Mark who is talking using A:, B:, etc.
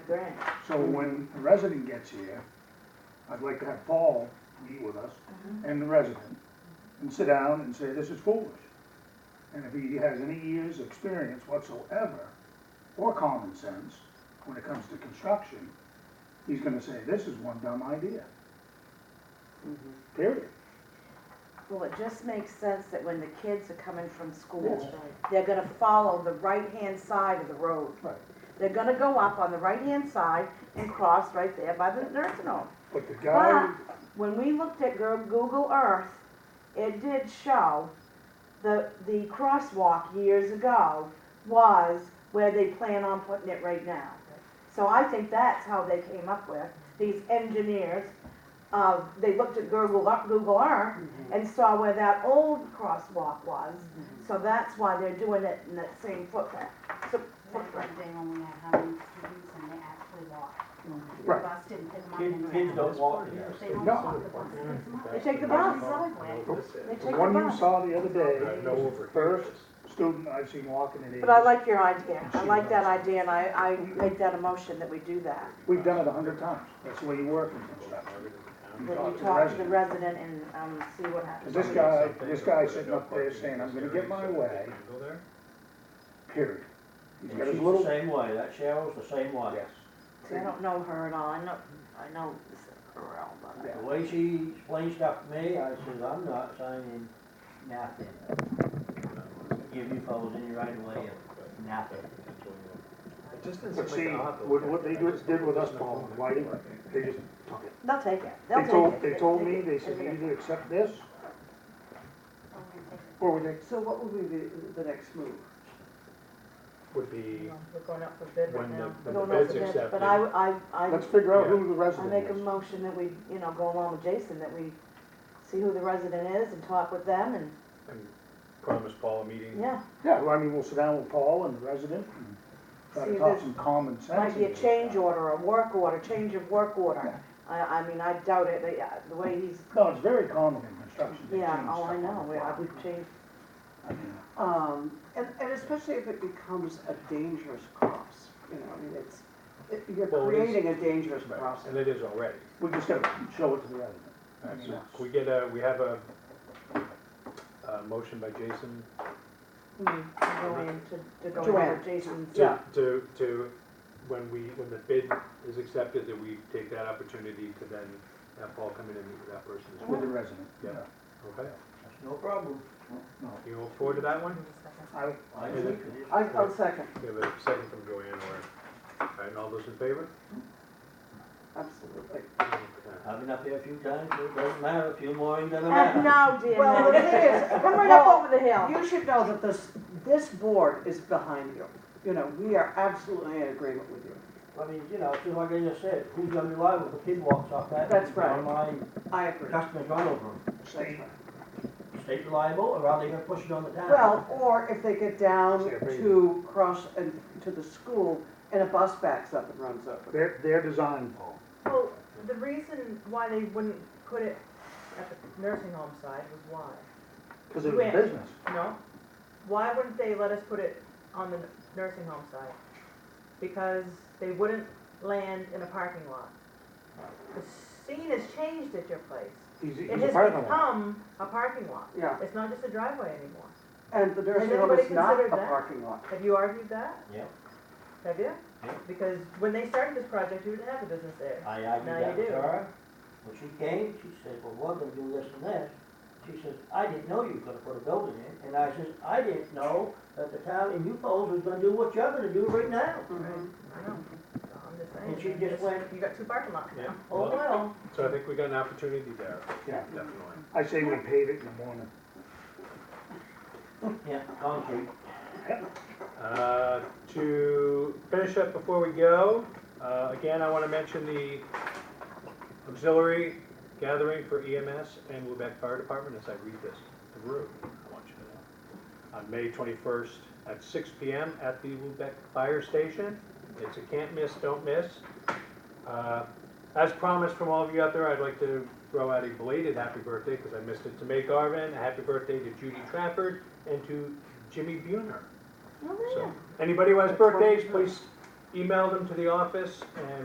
A: Grant.
B: So when a resident gets here, I'd like to have Paul meet with us
A: Uh-huh.
B: and the resident and sit down and say, this is foolish. And if he has any years' experience whatsoever or common sense when it comes to construction, he's gonna say, this is one dumb idea.
A: Mm-hmm.
B: Period.
A: Well, it just makes sense that when the kids are coming from
B: That's
A: school, they're gonna follow the right-hand side of the road.
B: Right.
A: They're gonna go up on the right-hand side and cross right there by the nursing home.
B: But the guy,
A: When we looked at Goo- Google Earth, it did show the, the crosswalk years ago was where they plan on putting it right now. So I think that's how they came up with, these engineers, uh, they looked at Google, Ear- Google Earth and saw where that old crosswalk was. So that's why they're doing it in that same footprint, so- footprint.
C: They only had how many students and they actually walked. The
B: Right.
C: bus didn't pick them up
D: Kids-
C: in the
D: kids
C: back.
D: don't walk here.
C: They don't
B: No.
C: walk the bus picks them up.
A: They take the bus. They
B: the
A: take
B: one
A: the
B: you
A: bus.
B: saw the other day,
E: No over.
B: first student I've seen walking at eighty.
A: But I like your idea, I like that idea, and I, I make that a motion that we do that.
B: We've done it a hundred times. That's the way you work in construction.
A: When you talk to the resident and, um, see what happens.
B: Is this guy, this guy sitting up there saying, I'm gonna get my way, period. He's
D: And
B: got his
D: she's
B: little,
D: the same way, that Cheryl's the same way.
B: yes.
A: See, I don't know her at all, I know, I know Earl, but
B: Yeah.
D: The way she explains stuff to me, I says, I'm not signing nothing. Give you fellows any right of way of nothing.
B: But see, what, what they did did with us, Paul, and Whitey, they just took it.
A: they'll take it, they'll
B: They
A: take
B: told,
A: it.
B: they told me,
A: take
B: they
A: it,
B: said,
A: take
B: you
A: it.
B: either accept this
C: Don't we take it?
B: or we take,
F: So what would be the, the next move?
E: Would be
G: We're going up for bid right
E: when the,
G: now.
E: when
A: Don't
E: the
A: know
E: bid's
A: if it is,
E: accepted.
A: But I, I, I,
B: let's figure out who the
A: I make a
B: resident is.
A: motion that we, you know, go along with Jason, that we see who the resident is and talk with them and,
E: and Promise Paul a meeting.
A: yeah.
B: Yeah, well, I mean, we'll sit down with Paul and the resident and try
A: See,
B: to talk
A: this
B: some common sense.
A: Might be a
B: into it.
A: change order, a work order, change of work order. I, I mean, I doubt it, the, uh, the way he's,
B: No, it's very common in construction. They
A: yeah,
B: change
A: oh, I
B: stuff
A: know,
B: on the
A: we, I-
B: fly.
A: we've changed,
B: I mean,
F: Um, and, and especially if it becomes a dangerous cross, you know, I mean, it's, it- you're
E: Well, it is-
F: creating a dangerous
E: Right,
F: cross.
E: And it is already.
B: We just gotta show it to the resident.
E: Alright, so
B: Yes.
E: we get a, we have a, a motion by Jason
A: going to, to go over
F: Joanne.
A: Jason's.
E: to, to, to, when we, when the bid is accepted, that we take that opportunity to then have Paul come in and meet with that person as
B: With
E: well.
B: the resident.
E: Yeah. Okay,
D: That's no problem.
B: No,
E: you look forward to that one?
B: I,
D: I
E: Is
D: think
E: it-
D: it is.
F: I, I'll second,
E: We have a second from Joanne, or, alright, and all those in favor?
F: absolutely.
E: Okay.
D: I've been up here a few times, it doesn't matter, a few more, it doesn't
A: Ah,
D: matter.
A: No, dear,
F: Well, the
A: no.
F: thing is,
A: Come right up over the hill.
F: You should know that this, this board is behind you. You know, we are absolutely in agreement with you.
D: I mean, you know, just like I just said, who's gonna be liable if a kid walks off that?
F: That's right.
D: On my
F: I agree. That's
D: customer's run over him.
B: Steve,
F: right.
D: State reliable, or are they gonna push it on the town?
F: Well, or if they get down
B: See, I agree.
F: to cross and, to the school and a bus backs up and runs over.
B: their, their design, Paul.
G: Well, the reason why they wouldn't put it at the nursing home side was why?
B: Because it was
G: Right.
B: business.
G: No? Why wouldn't they let us put it on the nursing home side? Because they wouldn't land in a parking lot. The scene has changed at your place.
B: He's, he's
G: It
B: a
G: has
B: partner.
G: become a parking lot.
F: Yeah,
G: It's not just a driveway anymore.
F: and the nursing home
G: anybody
F: is not a
G: considered that?
F: parking lot.
G: Have you argued that?
D: Yeah.
G: Have you?
D: Yeah.
G: Because when they started this project, you didn't have a business there.
D: I
G: Now
D: argued
G: you
D: that with
G: do.
D: her. When she came, she said, well, we're gonna do this and this. She says, I didn't know you were gonna put a building in. And I says, I didn't know that the town and you folks was gonna do what you're gonna do right now.
F: Mhm.
G: I know, So I'm just saying.
D: And she just went-
G: You got two parking lots
E: Yeah,
G: now.
D: Oh,
E: well,
D: well,
E: so I think we got an opportunity there,
B: Yeah.
E: definitely.
B: I say we pave it in the morning.
D: yeah, concrete.
E: Uh, to finish up before we go, uh, again, I want to mention the auxiliary gathering for EMS and Lubec Fire Department as I read this through. I want you to know. On May 21st at 6 PM at the Lubec Fire Station. It's a can't miss, don't miss. Uh, As promised from all of you out there, I'd like to throw out a belated happy birthday because I missed it to May Garvin, a happy birthday to Judy Trafford, and to Jimmy Buhner. So, anybody who has birthdays, please email them to the office and